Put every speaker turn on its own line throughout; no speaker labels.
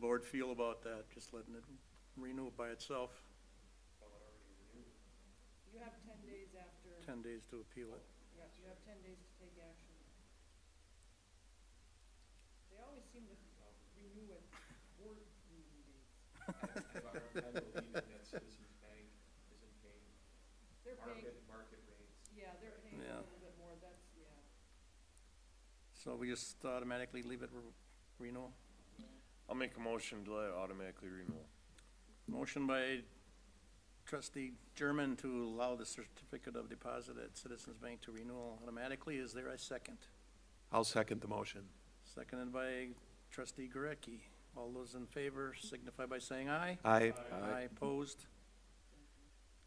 board feel about that, just letting it renew by itself,
You have ten days after,
ten days to appeal it.
yeah, you have ten days to take action. They always seem to renew at board meeting dates. They're paying,
market, market rates.
yeah, they're paying
Yeah.
a little bit more, that's, yeah.
So we just automatically leave it re- renewal?
I'll make a motion to let it automatically renew.
Motion by trustee German to allow the certificate of deposit at Citizens Bank to renewal automatically. Is there a second?
I'll second the motion.
Seconded by trustee Gurecki. All those in favor signify by saying aye.
Aye.
Aye, opposed.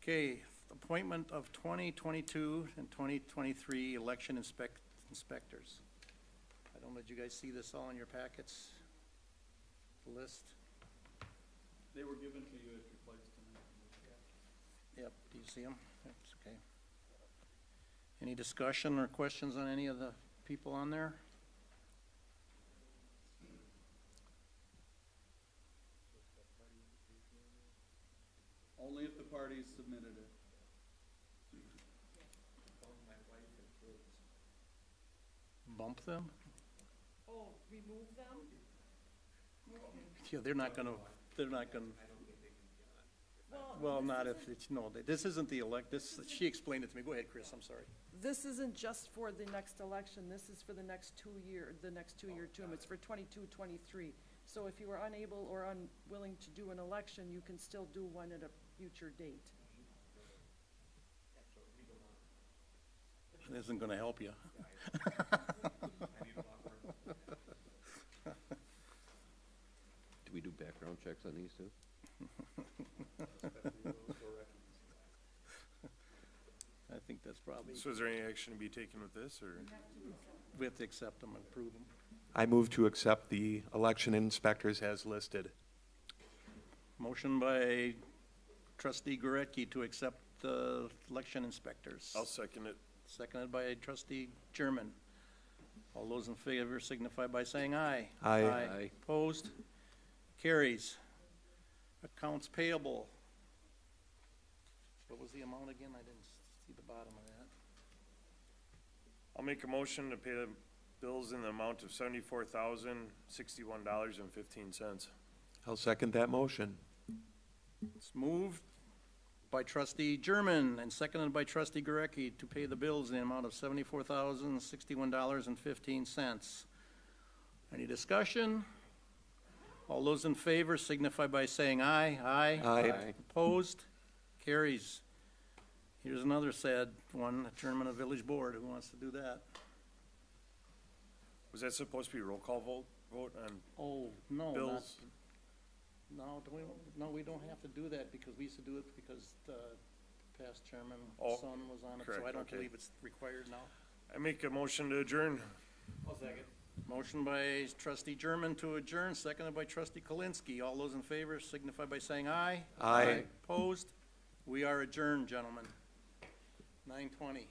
Okay, appointment of twenty twenty-two and twenty twenty-three election inspect, inspectors. I don't know, did you guys see this all in your packets? The list?
They were given to you at your place tonight.
Yep, do you see them? That's okay. Any discussion or questions on any of the people on there?
Only if the parties submitted it.
Bump them?
Oh, remove them?
Yeah, they're not gonna, they're not gonna,
Well,
well, not if it's, no, this isn't the elect, this, she explained it to me. Go ahead, Chris, I'm sorry.
this isn't just for the next election, this is for the next two year, the next two-year term, it's for 22, 23. So if you were unable or unwilling to do an election, you can still do one at a future date.
It isn't gonna help you.
Do we do background checks on these too?
I think that's probably,
So is there any action to be taken with this, or?
we have to accept them and approve them.
I move to accept the election inspectors as listed.
Motion by trustee Goretke to accept the election inspectors.
I'll second it.
Seconded by trustee German. All those in favor signify by saying aye.
Aye.
Aye.
Opposed? Carries. Accounts payable. What was the amount again? I didn't see the bottom of that.
I'll make a motion to pay the bills in the amount of seventy-four thousand, sixty-one dollars and fifteen cents.
I'll second that motion.
It's moved by trustee German and seconded by trustee Gurecki to pay the bills in the amount of seventy-four thousand, sixty-one dollars and fifteen cents. Any discussion? All those in favor signify by saying aye. Aye.
Aye.
Aye.
Opposed? Carries. Here's another sad one, adjournment of village board. Who wants to do that?
Was that supposed to be a roll call vote, vote on
Oh, no, not-
bills?
No, do we, no, we don't have to do that because we used to do it because the past chairman,
Oh,
son was on it, so
correct,
I don't
okay.
believe it's required now.
I make a motion to adjourn.
Motion by trustee German to adjourn, seconded by trustee Kalinsky. All those in favor signify by saying aye.
Aye.
Opposed? We are adjourned, gentlemen. Nine twenty.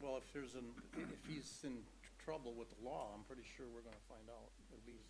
Well, if there's an, if he's in trouble with the law, I'm pretty sure we're gonna find out. It'll be